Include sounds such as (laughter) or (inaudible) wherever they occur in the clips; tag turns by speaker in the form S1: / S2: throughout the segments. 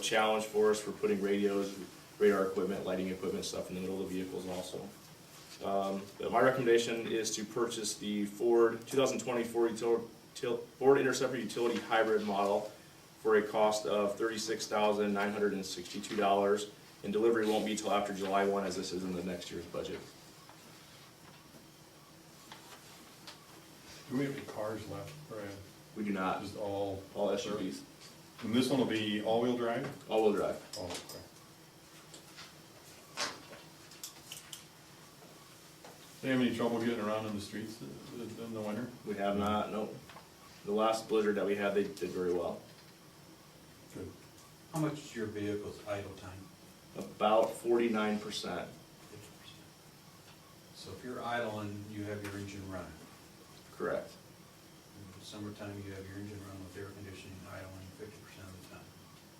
S1: challenge for us for putting radios, radar equipment, lighting equipment, stuff in the middle of the vehicles also. Um, but my recommendation is to purchase the Ford, two thousand twenty Ford util, til- Ford Interceptor Utility Hybrid model for a cost of thirty-six thousand nine hundred and sixty-two dollars, and delivery won't be till after July one, as this is in the next year's budget.
S2: Do we have any cars left, Brad?
S1: We do not,
S2: Just all,
S1: all SUVs,
S2: and this one will be all-wheel drive?
S1: all-wheel drive.
S2: Oh, okay. They have any trouble getting around in the streets th- th- in the winter?
S1: We have not, nope. The last blizzard that we had, they did very well.
S2: Good.
S3: How much is your vehicle's idle time?
S1: About forty-nine percent.
S3: So if you're idle and you have your engine running,
S1: Correct.
S3: in the summertime, you have your engine running with air conditioning idling fifty percent of the time.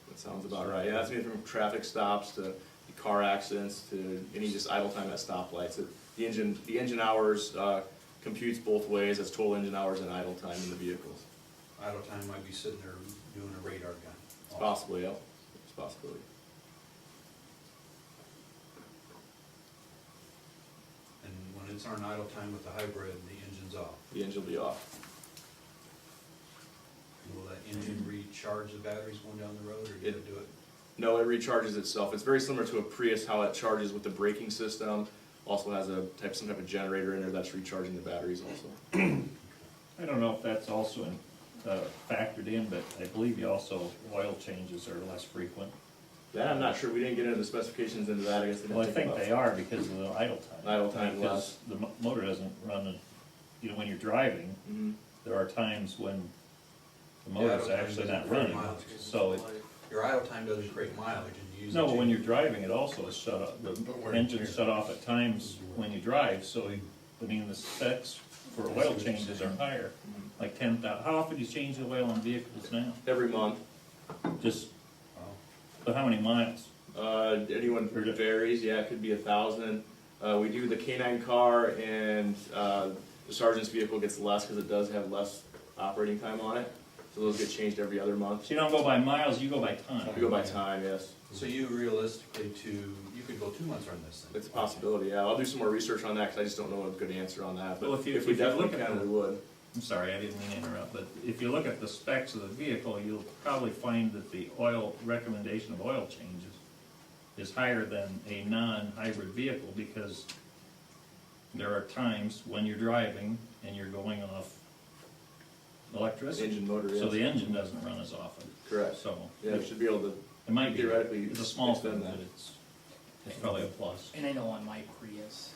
S1: That sounds about right. Yeah, that's me from traffic stops to car accidents to any just idle time at stoplights. It- The engine, the engine hours, uh, computes both ways as total engine hours and idle time in the vehicles.
S3: Idle time might be sitting there doing a radar gun.
S1: It's possible, yeah. It's a possibility.
S3: And when it's on idle time with the hybrid, the engine's off.
S1: The engine will be off.
S3: Will that engine recharge the batteries going down the road, or you gotta do it?
S1: No, it recharges itself. It's very similar to a Prius, how it charges with the braking system. Also has a type, some type of generator in there that's recharging the batteries also.
S4: I don't know if that's also in, uh, factored in, but I believe you also, oil changes are less frequent.
S1: That I'm not sure. We didn't get into the specifications into that. I guess they didn't
S4: Well, I
S1: take
S4: think
S1: about-
S4: they are because of the idle time.
S1: Idle time
S4: Because the mo- motor doesn't run, in- you know, when you're driving,
S1: Mhm.
S4: there are times when the
S3: Yeah, I
S4: motor's
S3: don't think
S4: actually
S3: it's
S4: not
S3: very
S4: running,
S3: mild.
S4: so it,
S3: Your idle time doesn't create mileage and you use.
S4: no,
S3: the
S4: but when
S3: engine.
S4: you're driving, it also is shut off,
S2: But
S4: the
S2: where-
S4: engine's shut off at times when you drive, so, you- I mean, the specs for oil changes are higher.
S3: Mm-hmm.
S4: Like ten thou, how often do you change the oil on vehicles now?
S1: Every month,
S4: Just,
S3: Wow.
S4: but how many miles?
S1: uh, anyone
S4: Heard it.
S1: varies, yeah, it could be a thousand. Uh, we do the canine car and, uh, the sergeant's vehicle gets less because it does have less operating time on it. So those get changed every other month.
S4: So you don't go by miles, you go by time.
S1: We go by time, yes.
S3: So you realistically to, you could go two months on this thing.
S1: It's a possibility, yeah. I'll do some more research on that because I just don't know a good answer on that.
S4: Well,
S1: But
S4: if you-
S1: if we
S4: if you
S1: definitely
S4: look at
S1: can,
S4: it-
S1: we would.
S4: I'm sorry, I didn't mean to interrupt, but if you look at the specs of the vehicle, you'll probably find that the oil, recommendation of oil changes is higher than a non-hybrid vehicle because there are times when you're driving and you're going off electricity.
S1: Engine motor,
S4: So the
S1: yes.
S4: engine doesn't run as often.
S1: Correct.
S4: So
S1: Yeah, we
S4: it
S1: should be able to,
S4: might be,
S1: theoretically,
S4: it's a small thing,
S1: extend
S4: but
S1: that.
S4: it's, it's probably a plus.
S5: And I know on my Prius,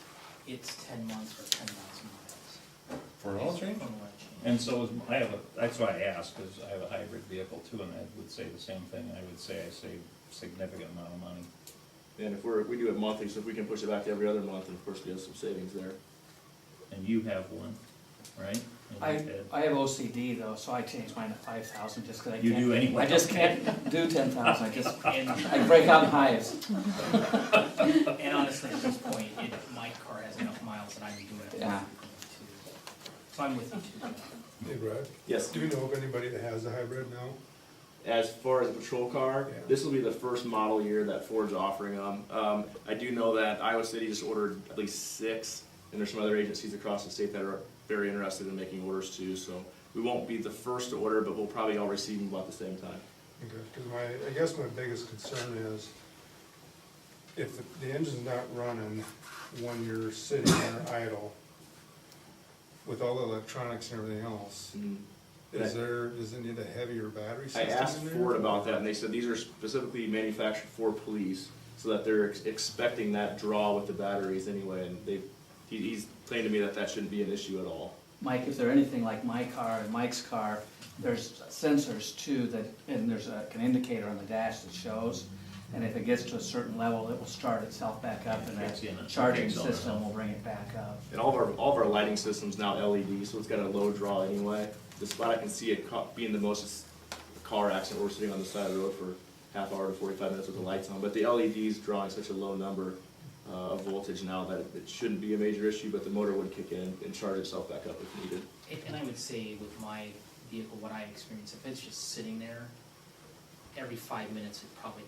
S5: it's ten months or ten thousand miles.
S2: For an oil change?
S5: From when I changed.
S4: And so is, I have a, that's why I asked, because I have a hybrid vehicle too, and I would say the same thing, I would say I save significant amount of money.
S1: and if we're, we do it monthly, so if we can push it back to every other month, then of course we have some savings there.
S4: And you have one, right? And you did.
S5: I, I have OCD though, so I changed mine to five thousand just 'cause I can't.
S4: You do anyway.
S5: I just can't do ten thousand, I
S4: (laughs)
S5: just, and (laughs) I break out in hives.
S6: And honestly, at this point, it, my car has enough miles that I'm doing it.
S5: Yeah.
S6: too. So I'm with you too.
S7: Hey, Brad,
S1: Yes.
S7: do you know of anybody that has a hybrid now?
S1: As far as the patrol car,
S7: Yeah.
S1: this will be the first model year that Ford's offering them. Um, I do know that Iowa City just ordered at least six, and there's some other agencies across the state that are very interested in making orders too. So we won't be the first to order, but we'll probably all receive them about the same time.
S7: Because my, I guess my biggest concern is if the- the engine's not running when you're sitting there idle with all the electronics and everything else, is there, does it need a heavier battery
S1: I
S7: system in there?
S1: asked Ford about that, and they said these are specifically manufactured for police, so that they're ex- expecting that draw with the batteries anyway. And they, he, he's claimed to me that that shouldn't be an issue at all.
S5: Mike, if they're anything like my car and Mike's car, there's sensors too that, and there's a, an indicator on the dash that shows. And if it gets to a certain level, it will start itself back up and
S4: Kicks in
S5: that
S4: and
S5: charging
S4: kicks on and
S5: system
S4: off.
S5: will bring it back up.
S1: And all of our, all of our lighting systems now LED, so it's got a low draw anyway. The spot I can see it ca- being the most is a car accident, we're sitting on the side of the road for half hour to forty-five minutes with the lights on. But the LED's drawing such a low number uh, of voltage now that it- it shouldn't be a major issue, but the motor would kick in and charge itself back up if needed.
S6: And- And I would say with my vehicle, what I experience, if it's just sitting there, every five minutes, it probably